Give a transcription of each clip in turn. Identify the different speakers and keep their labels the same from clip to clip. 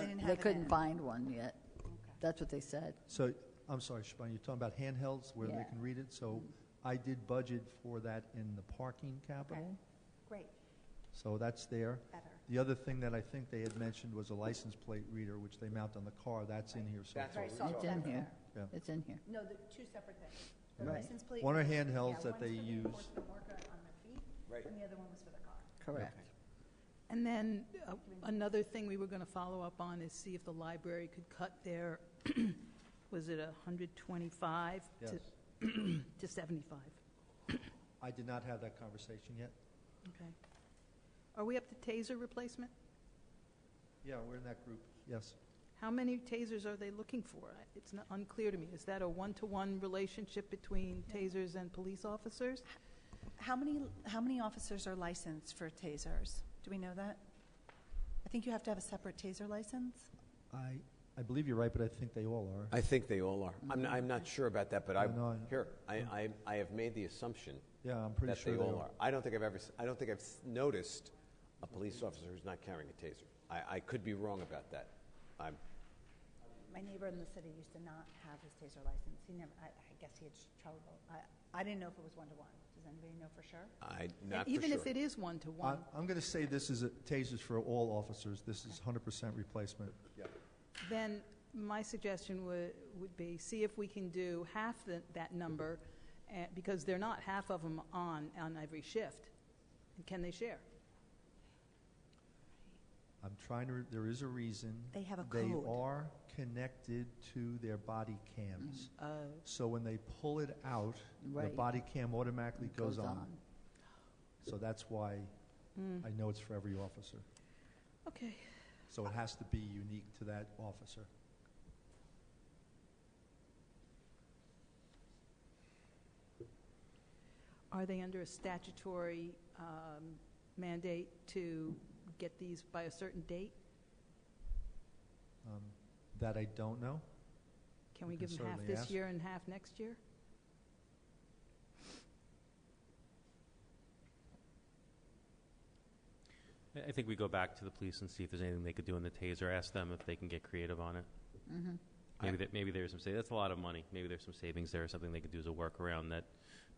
Speaker 1: They
Speaker 2: have it
Speaker 1: couldn't
Speaker 2: in.
Speaker 1: find one yet. That's what they said.
Speaker 3: So, I'm sorry, Shabani, you're talking about handhelds where they
Speaker 1: Yeah.
Speaker 3: can read it? So I did budget for that in the parking capital,
Speaker 2: Great,
Speaker 3: so that's there.
Speaker 2: better.
Speaker 3: The other thing that I think they had mentioned was a license plate reader, which they mount on the car, that's in here, so.
Speaker 4: That's
Speaker 2: Right,
Speaker 4: what
Speaker 2: so
Speaker 4: we
Speaker 1: It's
Speaker 4: talked
Speaker 1: in
Speaker 4: about.
Speaker 1: here.
Speaker 3: Yeah.
Speaker 1: It's in here.
Speaker 2: No, the two separate things. The
Speaker 1: Right.
Speaker 2: license plate.
Speaker 3: One are
Speaker 2: yeah,
Speaker 3: handhelds that
Speaker 2: one's
Speaker 3: they
Speaker 2: for the
Speaker 3: use.
Speaker 2: enforcement worker on the feet,
Speaker 4: Right.
Speaker 2: And the other one was for the car.
Speaker 1: Correct.
Speaker 5: And then uh, another thing we were going to follow up on is see if the library could cut their, was it 125
Speaker 3: Yes.
Speaker 5: to to 75?
Speaker 3: I did not have that conversation yet.
Speaker 5: Okay. Are we up to taser replacement?
Speaker 3: Yeah, we're in that group, yes.
Speaker 5: How many tasers are they looking for? I- It's not unclear to me. Is that a one-to-one relationship between tasers and police officers?
Speaker 2: How many, how many officers are licensed for tasers? Do we know that? I think you have to have a separate taser license?
Speaker 3: I, I believe you're right, but I think they all are.
Speaker 4: I think they all are. I'm, I'm not sure about that, but I,
Speaker 3: No, no, I know.
Speaker 4: here, I, I, I have made the assumption
Speaker 3: Yeah, I'm pretty
Speaker 4: that
Speaker 3: sure
Speaker 4: they all are. I don't think I've ever, s- I don't think I've s- noticed a police officer who's not carrying a taser. I, I could be wrong about that. I'm,
Speaker 6: My neighbor in the city used to not have his taser license. He never, I, I guess he had trouble. I, I didn't know if it was one-to-one. Does anybody know for sure?
Speaker 4: I, not for sure.
Speaker 5: Even if it is
Speaker 3: I,
Speaker 5: one-to-one,
Speaker 3: I'm gonna say this is a- tasers for all officers, this is hundred percent replacement.
Speaker 5: then my suggestion would, would be, see if we can do half the, that number, eh, because they're not half of them on, on every shift. Can they share?
Speaker 3: I'm trying to, re- there is a reason.
Speaker 2: They have a code.
Speaker 3: They are connected to their body cams.
Speaker 5: Uh,
Speaker 3: So when they pull it out, the
Speaker 1: Right.
Speaker 3: body cam automatically goes on. So that's why
Speaker 5: Mm-hmm.
Speaker 3: I know it's for every officer.
Speaker 5: Hmm. Okay,
Speaker 3: So it has to be unique to that officer.
Speaker 5: are they under a statutory um, mandate to get these by a certain date?
Speaker 3: Um, That I don't know.
Speaker 5: Can
Speaker 3: We
Speaker 5: we
Speaker 3: can
Speaker 5: give them half
Speaker 3: certainly ask.
Speaker 5: this year and half next year?
Speaker 7: I- I think we go back to the police and see if there's anything they could do in the taser. Ask them if they can get creative on it.
Speaker 1: Mm-hmm.
Speaker 7: Maybe that maybe there's some say that's a lot of money. Maybe there's some savings there. Something they could do as a workaround that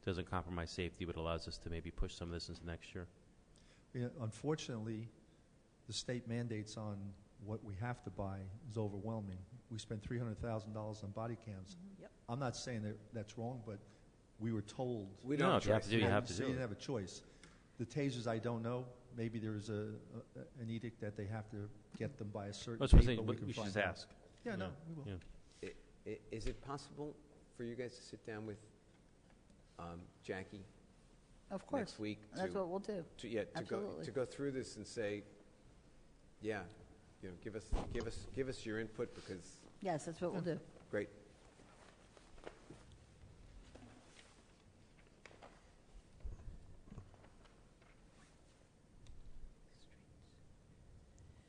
Speaker 7: doesn't compromise safety, but allows us to maybe push some of this into next year.
Speaker 3: You know, Unfortunately, the state mandates on what we have to buy is overwhelming. We spend three hundred thousand dollars on body cams.
Speaker 5: Yep.
Speaker 3: I'm not saying that that's wrong, but we were told.
Speaker 4: We
Speaker 7: No,
Speaker 4: don't
Speaker 7: if you have
Speaker 4: address
Speaker 7: to do, you
Speaker 4: that.
Speaker 7: have to
Speaker 3: So
Speaker 7: do
Speaker 3: you didn't
Speaker 7: it.
Speaker 3: have a choice. The tasers, I don't know. Maybe there's a, a- an edict that they have to get them by a certain
Speaker 7: That's what I'm
Speaker 3: date, but
Speaker 7: saying.
Speaker 3: we
Speaker 7: but
Speaker 3: can
Speaker 7: We should
Speaker 3: find
Speaker 7: just
Speaker 3: out.
Speaker 7: ask.
Speaker 3: Yeah, no,
Speaker 7: Yeah.
Speaker 3: we will.
Speaker 7: Yeah.
Speaker 4: I- i- Is it possible for you guys to sit down with um, Jackie
Speaker 1: Of course.
Speaker 4: next week?
Speaker 1: That's
Speaker 4: to-
Speaker 1: what we'll do.
Speaker 4: to, yeah, to go,
Speaker 1: Absolutely.
Speaker 4: to go through this and say, yeah, you know, give us, give us, give us your input because,
Speaker 1: Yes, that's what we'll do.
Speaker 4: great.
Speaker 3: I'm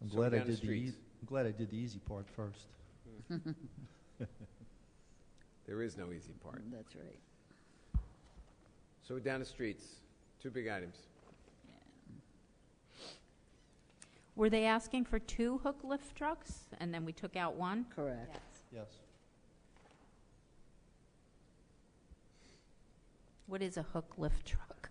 Speaker 4: So
Speaker 3: glad I
Speaker 4: down the
Speaker 3: did the, ea-
Speaker 4: streets.
Speaker 3: I'm glad I did the easy part first.
Speaker 4: There is no easy part.
Speaker 1: That's right.
Speaker 4: So we're down the streets, two big items.
Speaker 8: Were they asking for two hook lift trucks and then we took out one?
Speaker 1: Correct.
Speaker 3: Yes.
Speaker 8: What is a hook lift truck?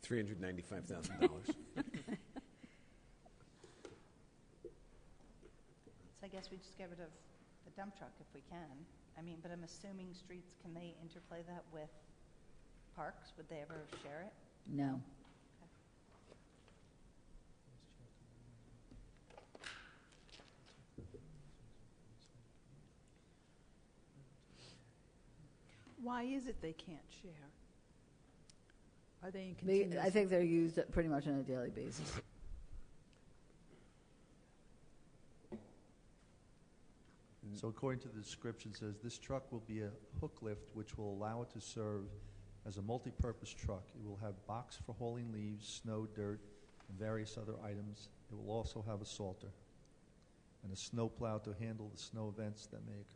Speaker 4: $395,000.
Speaker 6: So I guess we just get rid of the dump truck if we can. I mean, but I'm assuming streets, can they interplay that with parks? Would they ever share it?
Speaker 1: No.
Speaker 5: Why is it they can't share? Are they in
Speaker 1: They-
Speaker 5: continuous?
Speaker 1: I think they're used pretty much on a daily basis.
Speaker 3: So according to the description, it says this truck will be a hook lift, which will allow it to serve as a multi-purpose truck. It will have box for hauling leaves, snow, dirt, and various other items. It will also have a salter and a snowplow to handle the snow events that may occur.